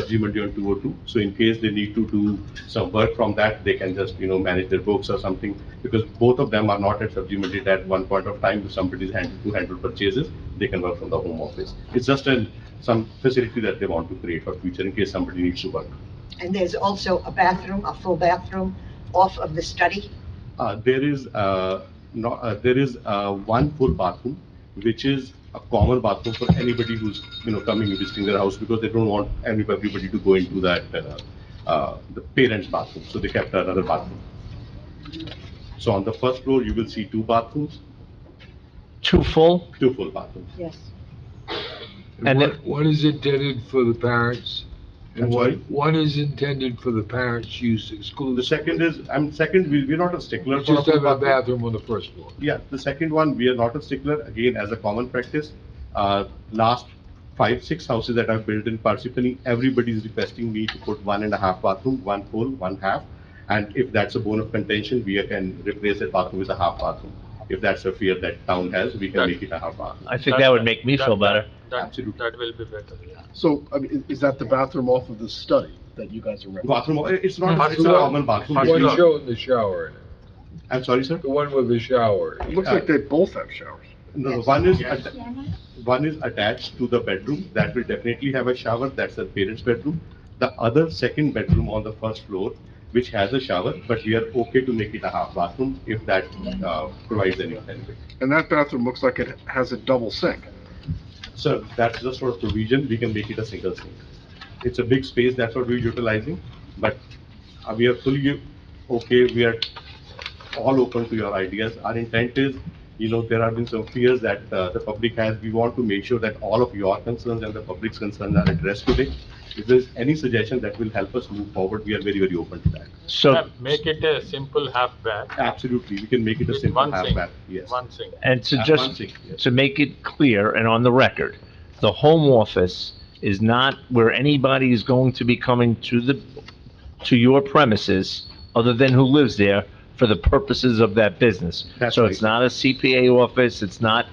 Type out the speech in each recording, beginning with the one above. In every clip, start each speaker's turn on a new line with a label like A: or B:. A: subsequently on 202. oh, So in case they need to do some work from that, they can just, you know, manage their books or something. Because both of them are not at subsequently at one point of time, if somebody is handled to handle purchases, they can work from the home office. It's just an, some facility that they want to create for future in case somebody needs to work.
B: And there's also a bathroom, a full bathroom off of the study.
A: Uh, There is, uh, no- uh, there is uh, one full bathroom, which is a common bathroom for anybody who's, you know, coming and visiting their house, because they don't want any- everybody to go into that, uh, uh, the parents' bathroom, so they kept another bathroom. So on the first floor, you will see two bathrooms,
C: Two full?
A: two full bathrooms.
B: Yes.
C: And
D: And what, what is intended for the parents?
A: I'm
D: And what,
A: sorry?
D: what is intended for the parents' use exclusively?
A: The second is, I'm, second, we- we're not a stickler
D: You
A: for a
D: Just
A: full
D: have a
A: bathroom.
D: bathroom on the first floor.
A: Yeah, the second one, we are not a stickler, again, as a common practice. Uh, Last five, six houses that I've built in Parsippany, everybody is requesting me to put one and a half bathroom, one full, one half. And if that's a bone of contention, we can replace that bathroom with a half bathroom. If that's a fear that town has, we can make it a half bathroom.
C: I think that would make me feel better.
E: That,
A: Absolutely.
E: that will be better, yeah.
F: So, I mean, is is that the bathroom off of the study that you guys are renting?
A: Bathroom, uh, it's not,
E: First
A: it's a
E: floor.
A: common
D: The
E: First
A: bathroom.
D: one
E: floor.
D: showing the shower in it,
A: I'm sorry, sir?
D: the one with the shower.
F: It looks like they both have showers.
A: No, one is, atta- one is attached to the bedroom, that will definitely have a shower, that's the parents' bedroom. The other second bedroom on the first floor, which has a shower, but we are okay to make it a half bathroom if that uh, provides any benefit.
F: And that bathroom looks like it has a double sink.
A: So that's just for provision, we can make it a single sink. It's a big space, that's what we're utilizing, but uh, we are fully okay, we are all open to your ideas. Our intent is, you know, there have been some fears that uh, the public has, we want to make sure that all of your concerns and the public's concerns are addressed today. If there's any suggestion that will help us move forward, we are very, very open to that.
C: So,
E: Yeah, Make it a simple half bath.
A: Absolutely, we can make it a
E: With
A: simple
E: one
A: half
E: sink,
A: bath, yes.
E: One sink.
C: and to
A: Uh, one
C: just,
A: sink, yes.
C: to make it clear and on the record, the home office is not where anybody is going to be coming to the, to your premises other than who lives there for the purposes of that business.
A: That's
C: So it's
A: right.
C: not a CPA office, it's not,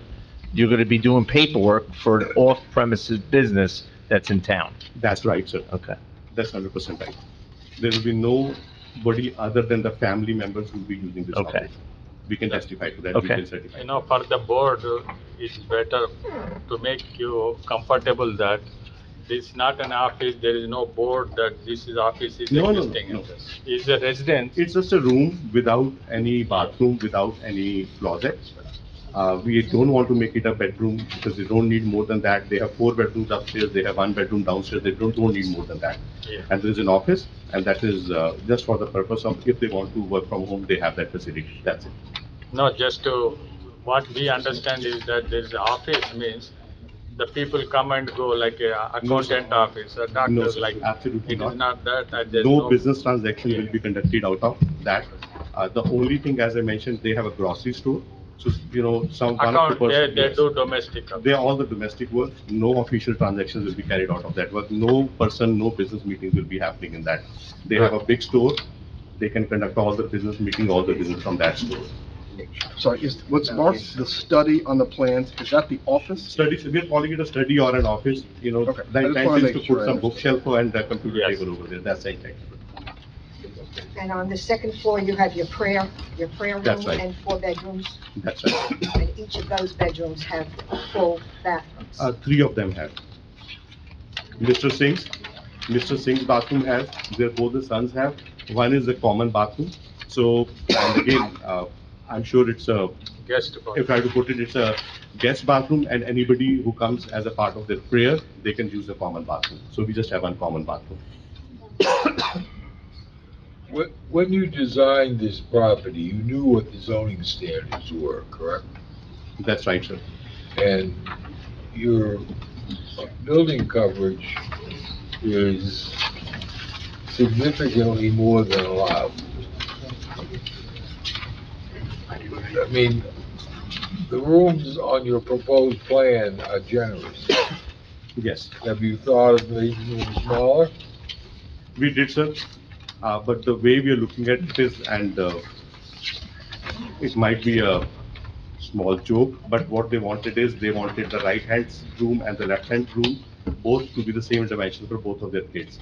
C: you're gonna be doing paperwork for an off-premises business that's in town.
A: That's right, sir.
C: Okay.
A: That's hundred percent right. There will be nobody other than the family members who will be using this
C: Okay.
A: office. We can testify to that, we
C: Okay.
A: can certify.
E: You know, for the board, uh, it's better to make you comfortable that this is not an office, there is no board that this is office is
A: No, no, no,
E: existing.
A: no.
E: It's a residence.
A: It's just a room without any bathroom, without any closet. Uh, we don't want to make it a bedroom because they don't need more than that. They have four bedrooms upstairs, they have one bedroom downstairs, they don't, don't need more than that.
E: Yeah.
A: And there's an office, and that is, uh, just for the purpose of if they want to work from home, they have that facility, that's it.
E: No, just to, what we understand is that there is office means the people come and go like a accountant office, a doctor's
A: sir,
E: like.
A: absolutely
E: It
A: not.
E: is not that, and there's no.
A: No business transaction will be conducted out of that. Uh, The only thing, as I mentioned, they have a grocery store, so, you know, some. one of the
E: Account, they,
A: person-
E: they do domestic.
A: They are all the domestic work, no official transactions will be carried out of that work, no person, no business meetings will be happening in that. They have a big store, they can conduct all the business meeting, all the business from that store.
F: Sorry, is, what's marked the study on the plans, is that the office?
A: Studies, we're calling it a study or an office, you know,
F: Okay.
A: the
F: I just wanna
A: intent is
F: make
A: to
F: sure
A: put
F: I
A: some
F: understand.
A: bookshelf and a computer
E: Yes.
A: table over there, that's the intent.
B: And on the second floor, you have your prayer, your prayer room.
A: That's right.
B: And four bedrooms,
A: That's right.
B: and each of those bedrooms have full bathrooms.
A: Uh, three of them have. Mr. Singh's, Mr. Singh's bathroom has, their both the sons have. One is the common bathroom. So, and again, uh, I'm sure it's a,
E: Guest board.
A: if I had to put it, it's a guest bathroom and anybody who comes as a part of their prayer, they can use the common bathroom. So we just have one common bathroom.
D: When, when you designed this property, you knew what the zoning standards were, correct?
A: That's right, sir.
D: And your building coverage is significantly more than allowed. I mean, the rooms on your proposed plan are generous.
A: Yes.
D: Have you thought of making them smaller?
A: We did, sir. Uh, But the way we are looking at it is, and uh, it might be a small joke, but what they wanted is, they wanted the right-hand room and the left-hand room both to be the same dimension for both of their kids.